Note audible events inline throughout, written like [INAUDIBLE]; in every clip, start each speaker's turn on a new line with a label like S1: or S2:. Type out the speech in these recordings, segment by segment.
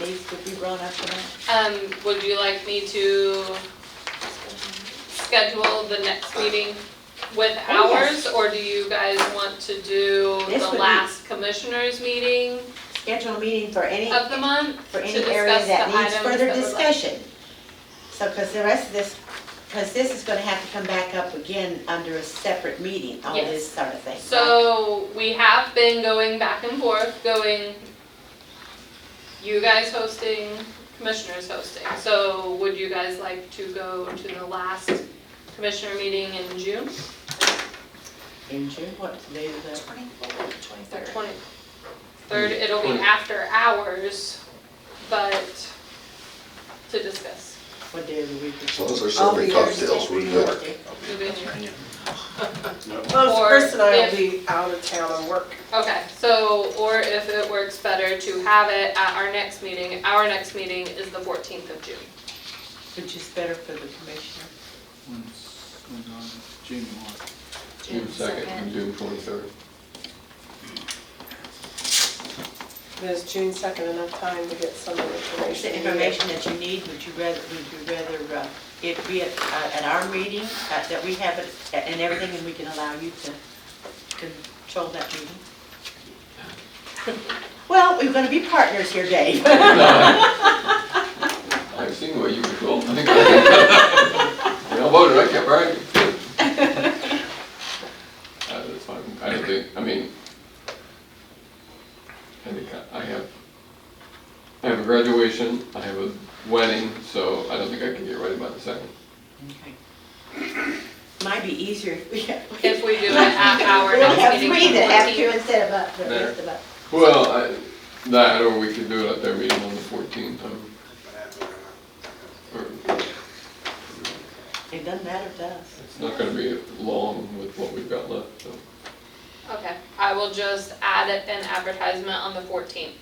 S1: needs to be brought up for that?
S2: Um, would you like me to schedule the next meeting with
S1: Oh, yes.
S2: hours? Or do you guys want to do
S1: This
S2: the
S1: would be-
S2: last commissioners meeting
S1: Schedule a meeting for any,
S2: of the month?
S1: for any
S2: to
S1: area
S2: discuss
S1: that
S2: the
S1: needs
S2: items
S1: further
S2: that we're like-
S1: discussion. So, because the rest of this, because this is gonna have to come back up again under a separate meeting, all
S2: Yes.
S1: this sort of thing. right?
S2: So we have been going back and forth, going, you guys hosting, commissioners hosting. So would you guys like to go to the last commissioner meeting in June?
S1: In June, what day is that?
S3: Twenty-fourth, twenty-third.
S2: Twenty. Third, it'll be after hours, but to discuss.
S1: What day of the week is
S4: As long
S1: it?
S4: as they're
S1: I'll be
S4: serving
S1: there
S4: cocktails, we're
S1: Tuesday,
S4: good.
S1: Thursday.
S2: You'll be in here.
S5: Well,
S2: Or
S5: Chris and I
S2: if-
S5: will be out of town on work.
S2: Okay, so, or if it works better to have it at our next meeting, our next meeting is the fourteenth of June.
S1: Which is better for the commissioner?
S6: When's, when's on June one?
S4: June second and June [LAUGHS] twenty-third.
S5: There's June second enough time to get some of the
S1: Is
S5: information.
S1: the information that you need, would you rather, would you rather uh, it be at, uh, at our meeting, uh, that we have it, a- and everything, and we can allow you to control that meeting? [LAUGHS] Well, we're gonna be partners here, [LAUGHS] Dave.
S4: I've seen where you could go. I [LAUGHS] voted, I can't argue. [LAUGHS] Uh, That's fine, I don't think, I mean, I think I I have, I have a graduation, I have a wedding, so I don't think I can get ready by the second.
S1: Might be easier if we have.
S2: If we do it at our
S1: We'll have
S2: next meeting.
S1: three that have to
S2: 14th.
S1: instead of us, the rest of us.
S4: Well, I, that, or we could do it at their meeting on the fourteenth, um, or,
S1: It doesn't matter to us.
S4: it's not gonna be long with what we've got left, so.
S2: Okay, I will just add it an advertisement on the fourteenth.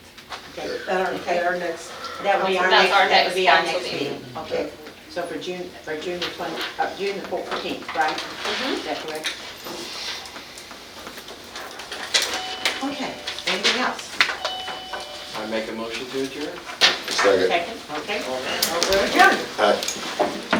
S1: Okay.
S5: At our, at our next,
S1: That would be our
S2: That's
S1: next,
S2: our
S1: that would
S2: next
S1: be our
S2: council
S1: next
S2: meeting.
S1: meeting. Okay, so for June, for June the twenty, uh, June the fourteenth, right?
S2: Mm-hmm.
S1: Is that correct? Okay, anything else?
S7: I make a motion to adjourn?
S4: Second.
S1: Second, okay, over adjourned.
S4: Aye.